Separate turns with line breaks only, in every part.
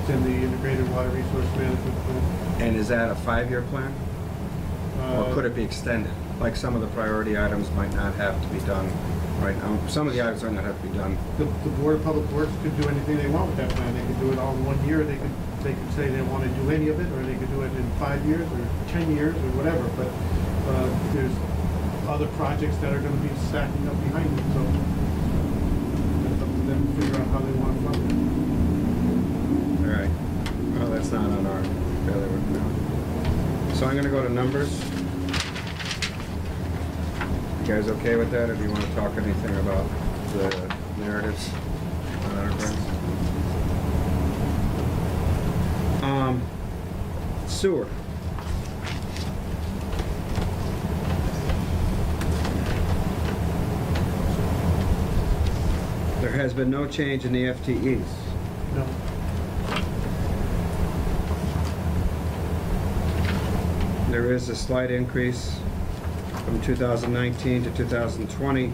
It's in the Integrated Water Resource Management Plan.
And is that a five-year plan? Or
Uh,
could it be extended? Like some of the priority items might not have to be done right now. Some of the items might not have to be done.
The, the Board of Public Works could do anything they want with that plan. They could do it all in one year, they could, they could say they want to do any of it, or they could do it in five years, or 10 years, or whatever, but uh, there's other projects that are going to be stacking up behind it, so it's up to them to figure out how they want to fund it.
All right. Well, that's not on our bailiwick now. So I'm gonna go to numbers. You guys okay with that, or do you wanna talk anything about the narratives on enterprise? Um, sewer. There has been no change in the FTEs.
No.
There is a slight increase from 2019 to 2020,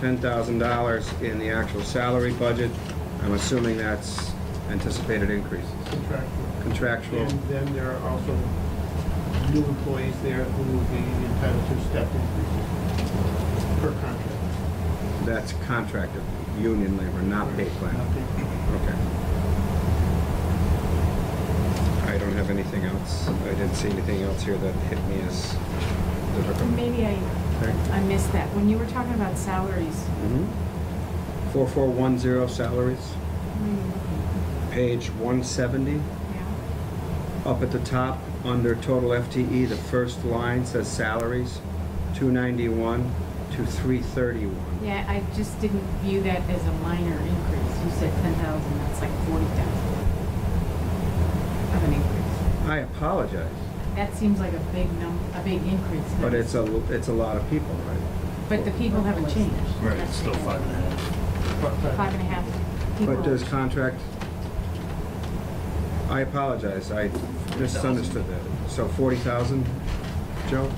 $10,000 in the actual salary budget. I'm assuming that's anticipated increases.
Contractual.
Contractual,
And then there are also new employees there who will be entitled to step increases per contract.
that's contracted, union labor, not pay plan.
Nothing.
Okay. I don't have anything else. I didn't see anything else here that hit me as difficult.
Maybe I,
Okay.
I missed that. When you were talking about salaries,
Mhm. 4410 salaries, page 170.
yeah,
Up at the top, under total FTE, the first line says salaries, 291 to 331.
yeah, I just didn't view that as a minor increase. You said ten thousand, that's like forty thousand of an increase.
I apologize,
That seems like a big num, a big increase.
but it's a, it's a lot of people, right?
But the people haven't changed.
Right, it's still five and a half.
Five and a half people.
But does contract, I apologize, I misunderstood that. So 40,000, Joe?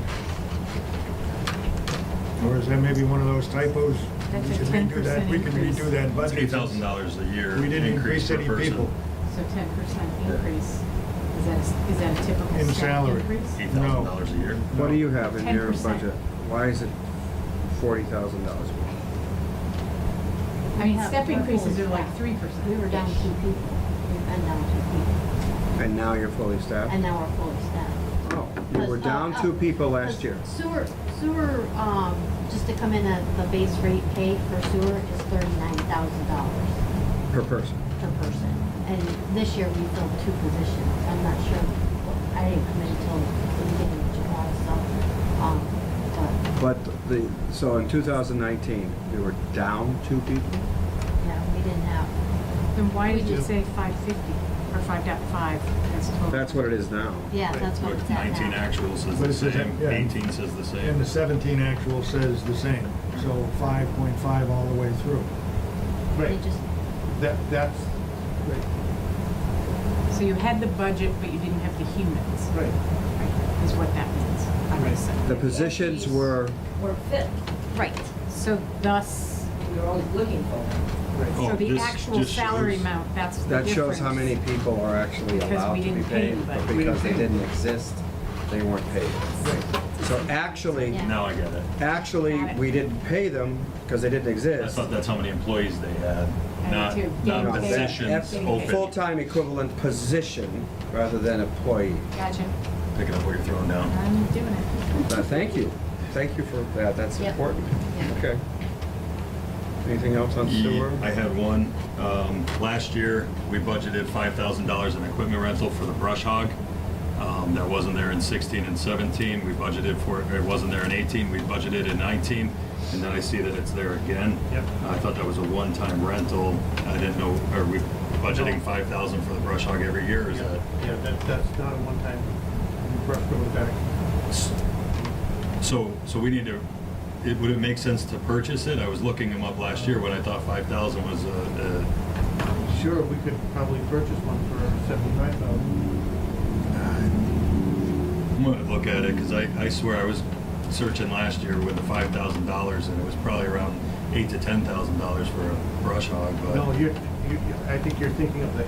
Or is that maybe one of those typos?
That's
We
a
should redo that.
10%
We can
increase.
redo that
It's
budget.
eight thousand dollars a year.
We didn't increase
per
any
person.
people.
So ten percent increase, is that, a- is that a typical
In
staff
salary.
increase?
Eight thousand dollars a year.
What do you have in your
10%.
budget? Why is it $40,000 more?
I mean, step increases are like three percent.
We were down two people, We've been down two people,
And now you're fully staffed?
and now we're fully staffed.
Oh, You were
Because, uh,
down
uh,
two people last year.
Sewer, sewer, um, just to come in at the base rate paid for sewer is thirty-nine thousand dollars
Per person.
per person. And this year we filled two positions, I'm not sure, I didn't come in until the beginning of July, so, um, but,
But the, so in 2019, we were down two people?
yeah, we didn't have,
Then why did you
Yeah.
say five fifty or five point five as total?
That's what it is now.
yeah, that's what it's at
Nineteen
now.
actuals says
But
the
it's the same,
same,
yeah.
eighteen says the
And
same.
the 17 actual says the same, so 5.5 all the way through.
They
Right,
just,
that, that's, right,
So you had the budget, but you didn't have the humans,
right.
right, is what that means, I would
Right.
say.
The positions were,
We're fit.
right,
So thus,
We were always looking for them.
Oh,
so the
this
actual
just
salary
shows-
amount, that's the
that
difference.
shows how many people are actually
Because
allowed
we
to be
didn't pay
paid. But
anybody.
because they
We didn't
didn't exist, they weren't paid. So actually,
Yeah.
Now I get it.
actually,
Got it.
we didn't pay them because they didn't
I
exist.
thought that's how many employees they had,
I
not,
do.
not
No,
that-
positions
that
open.
Full-time equivalent position rather than employee.
Gotcha,
Picking up what you're throwing down.
I'm doing it.
Uh, Thank you. Thank you for that. That's
Yep.
important.
Yeah.
Okay. Anything else on sewer?
I had one. Um, last year, we budgeted five thousand dollars in equipment rental for the brush hog. Um, that wasn't there in sixteen and seventeen. We budgeted for it, or it wasn't there in eighteen. We budgeted in nineteen. And then I see that it's there again. Yep. I thought that was a one-time rental. I didn't know, are we budgeting five thousand for the brush hog every year? or Is that?
Yeah, that, that's not a one-time, rough go with that.
So, so we need to, it, would it make sense to purchase it? I was looking them up last year when I thought five thousand was, uh, uh,
Sure, we could probably purchase one for seventy-five thousand.
I'm gonna look at it, because I, I swear I was searching last year with the five thousand dollars, and it was probably around eight to ten thousand dollars for a brush hog, but.
No, you're, you, I think you're thinking of the